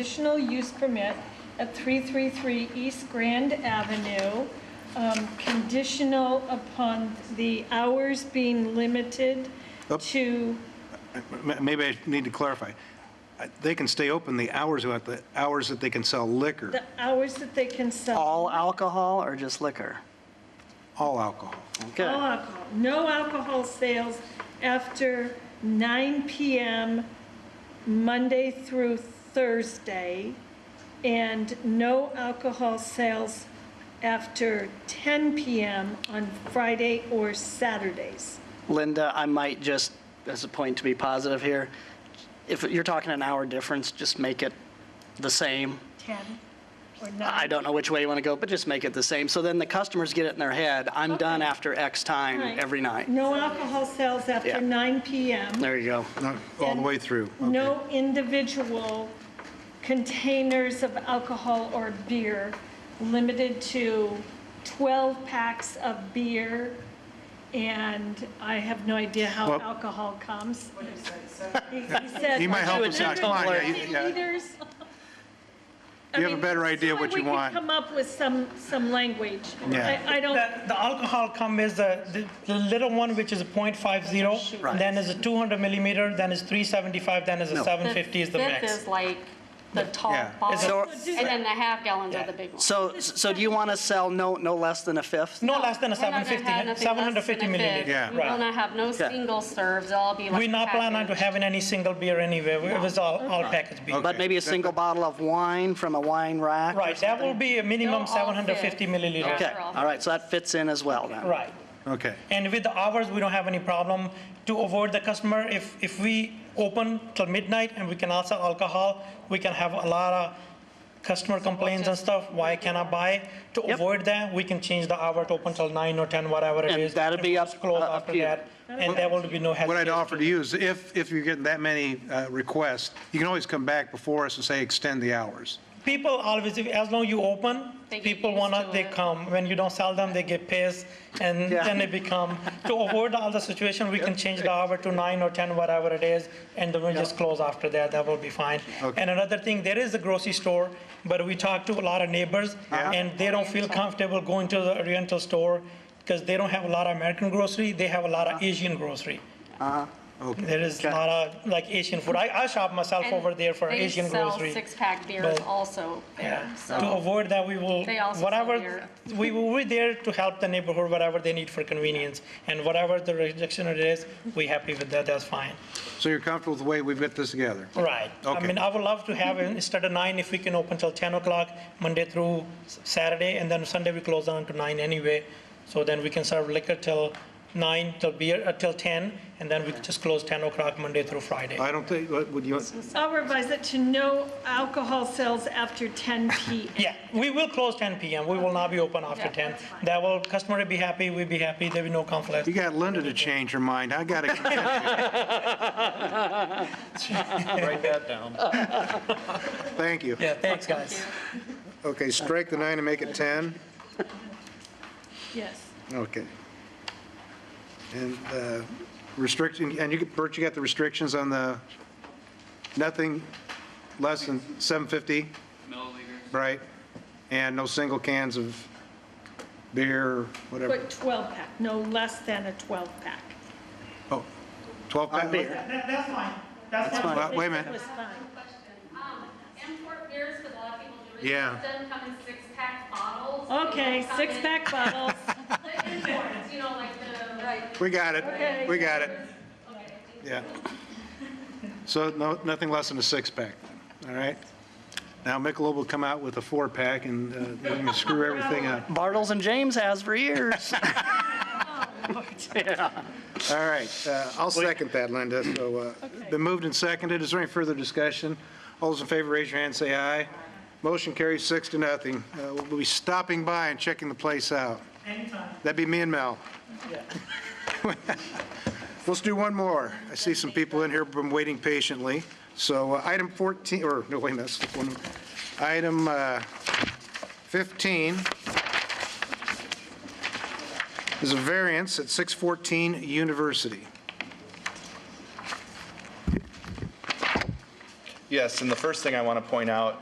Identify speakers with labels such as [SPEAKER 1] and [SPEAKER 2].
[SPEAKER 1] Additional use permit at 333 East Grand Avenue, um, conditional upon the hours being limited
[SPEAKER 2] Up.
[SPEAKER 1] to,
[SPEAKER 2] M- Maybe I need to clarify. Uh, They can stay open the hours, about the hours that they can sell liquor,
[SPEAKER 1] the hours that they can sell.
[SPEAKER 3] All alcohol or just liquor?
[SPEAKER 2] all alcohol.
[SPEAKER 1] All
[SPEAKER 3] Okay.
[SPEAKER 1] alcohol, no alcohol sales after 9 PM, Monday through Thursday, and no alcohol sales after 10 PM on Friday or Saturdays.
[SPEAKER 3] Linda, I might just, as a point to be positive here, if you're talking an hour difference, just make it the same.
[SPEAKER 1] 10 or 9?
[SPEAKER 3] I don't know which way you want to go, but just make it the same. So then the customers get it in their head, I'm done after X time every night.
[SPEAKER 1] No alcohol sales
[SPEAKER 3] Yeah.
[SPEAKER 1] after 9 PM.
[SPEAKER 3] There you go.
[SPEAKER 2] No, All the way through. Okay.
[SPEAKER 1] No individual containers of alcohol or beer, limited to 12 packs of beer, and I have no idea how
[SPEAKER 2] Well-
[SPEAKER 1] alcohol comes. He he said.
[SPEAKER 2] He might help
[SPEAKER 3] us out. Come on, yeah, you-
[SPEAKER 1] 150
[SPEAKER 2] yeah.
[SPEAKER 1] liters. I
[SPEAKER 2] You have a
[SPEAKER 1] mean,
[SPEAKER 2] better idea
[SPEAKER 1] so
[SPEAKER 2] what you want.
[SPEAKER 1] We could come up with some, some language.
[SPEAKER 2] Yeah.
[SPEAKER 1] I, I don't.
[SPEAKER 4] The the alcohol come is the, the- the little one, which is a .50,
[SPEAKER 3] Right.
[SPEAKER 4] then is a 200 millimeter, then is 375, then is a
[SPEAKER 2] No.
[SPEAKER 4] 750 is the
[SPEAKER 5] fifth
[SPEAKER 4] max.
[SPEAKER 5] is like the tall
[SPEAKER 2] Yeah.
[SPEAKER 3] So-
[SPEAKER 5] bottle, and then the half gallons are the big ones.
[SPEAKER 3] So, so do you want to sell no, no less than a fifth?
[SPEAKER 4] No less than a
[SPEAKER 5] We're not gonna
[SPEAKER 4] 750,
[SPEAKER 5] have nothing less
[SPEAKER 4] 750
[SPEAKER 5] than a
[SPEAKER 4] milliliter.
[SPEAKER 5] fifth.
[SPEAKER 2] Yeah.
[SPEAKER 5] We will
[SPEAKER 4] Right.
[SPEAKER 5] not have no single serves, it'll all be like.
[SPEAKER 4] We not plan on to
[SPEAKER 5] packaged.
[SPEAKER 4] having any single beer anyway, We- it was all, all packaged beer.
[SPEAKER 3] But maybe a single bottle of wine from a wine rack?
[SPEAKER 4] Right, that will be a
[SPEAKER 5] They'll
[SPEAKER 4] minimum
[SPEAKER 5] all
[SPEAKER 4] 750
[SPEAKER 5] fit.
[SPEAKER 4] milliliters.
[SPEAKER 3] Okay, all right, so that fits in as well then.
[SPEAKER 4] Right.
[SPEAKER 2] Okay.
[SPEAKER 4] And with the hours, we don't have any problem to avoid the customer. If, if we open till midnight and we cannot sell alcohol, we can have a lot of customer complaints and stuff, why can I buy? To
[SPEAKER 3] Yep.
[SPEAKER 4] avoid that, we can change the hour to open till nine or 10, whatever it
[SPEAKER 3] And
[SPEAKER 4] is.
[SPEAKER 3] that'll be
[SPEAKER 4] If
[SPEAKER 3] up- uh,
[SPEAKER 4] it's closed
[SPEAKER 3] up
[SPEAKER 4] after
[SPEAKER 3] to you.
[SPEAKER 4] that, And there will be no hesitation.
[SPEAKER 2] What I'd offer to you is if, if you're getting that many uh, requests, you can always come back before us and say, extend the hours.
[SPEAKER 4] People always, if- as long you open,
[SPEAKER 5] They get
[SPEAKER 4] people
[SPEAKER 5] used
[SPEAKER 4] wanna,
[SPEAKER 5] to
[SPEAKER 4] they
[SPEAKER 5] it.
[SPEAKER 4] come. When you don't sell them, they get pissed, and
[SPEAKER 3] Yeah.
[SPEAKER 4] then they become, to avoid all the situation, we can change the hour to nine or 10, whatever it is, and then we'll just close after that, that will be fine.
[SPEAKER 2] Okay.
[SPEAKER 4] And another thing, there is a grocery store, but we talked to a lot of neighbors, and they don't feel comfortable going to the Oriental store, because they don't have a lot of American grocery, they have a lot of Asian grocery. There is a lot of, like, Asian food. I, I shop myself
[SPEAKER 5] And
[SPEAKER 4] over there for Asian grocery.
[SPEAKER 5] They sell six-pack beers
[SPEAKER 4] But-
[SPEAKER 5] also there,
[SPEAKER 4] Yeah, to
[SPEAKER 5] so
[SPEAKER 4] avoid that, we will,
[SPEAKER 5] They also sell
[SPEAKER 4] whatever,
[SPEAKER 5] beer.
[SPEAKER 4] we will be there to help the neighborhood, whatever they need for convenience. And whatever the rejection it is, we happy with that, that's fine.
[SPEAKER 2] So you're comfortable with the way we've got this together?
[SPEAKER 4] Right. I
[SPEAKER 2] Okay.
[SPEAKER 4] mean, I would love to have, it instead of nine, if we can open till 10 o'clock, Monday through S- Saturday, and then Sunday we close down to nine anyway. So then we can serve liquor till nine, till beer, uh, till 10, and then we just close 10 o'clock Monday through Friday.
[SPEAKER 2] I don't think, what would you,
[SPEAKER 1] I'll revise it to no alcohol sales after 10 PM.
[SPEAKER 4] Yeah, we will close 10 PM. We will not be open after
[SPEAKER 5] Yeah,
[SPEAKER 4] 10. That will, customer will be happy, we'll be happy, there will be no conflict.
[SPEAKER 2] you got Linda to change her mind. I got to,
[SPEAKER 6] Write that down.
[SPEAKER 2] thank you.
[SPEAKER 4] Yeah, thanks, guys.
[SPEAKER 2] Okay, strike the nine and make it 10.
[SPEAKER 1] Yes.
[SPEAKER 2] Okay. And uh, restriction, and you, could- Bert, you got the restrictions on the, nothing less than 750? Milliliters. Right? And no single cans of beer, whatever.
[SPEAKER 1] But 12-pack, no less than a 12-pack.
[SPEAKER 2] Oh, 12 pack? Beer.
[SPEAKER 4] That's fine. That's fine.
[SPEAKER 2] Wait a minute.
[SPEAKER 1] Was fine.
[SPEAKER 7] Um, import beers, because a lot of people do. it.
[SPEAKER 2] Yeah.
[SPEAKER 7] It doesn't come in six-pack bottles. They
[SPEAKER 1] Okay,
[SPEAKER 7] come in-
[SPEAKER 1] six-pack bottles.
[SPEAKER 7] The imports, you know, like the,
[SPEAKER 2] We got
[SPEAKER 1] Okay.
[SPEAKER 2] it. We got it. Yeah. So no, nothing less than a six-pack, all right? Now Michelob will come out with a four-pack and uh, they're going to screw everything up.
[SPEAKER 3] Bartles and James has for years.
[SPEAKER 4] Oh,
[SPEAKER 2] All right, uh, I'll second that, Linda. So, uh, been moved and seconded. Is there any further discussion? All those in favor, raise your hand, say aye. Motion carries six to nothing. Uh, We'll be stopping by and checking the place out. Anytime. That'd be me and Mel. Let's do one more. I see some people in here who've been waiting patiently. So uh, item 14, or, no, wait, that's the one. Item uh, 15 is a variance at 614 University.
[SPEAKER 8] Yes, and the first thing I want to point out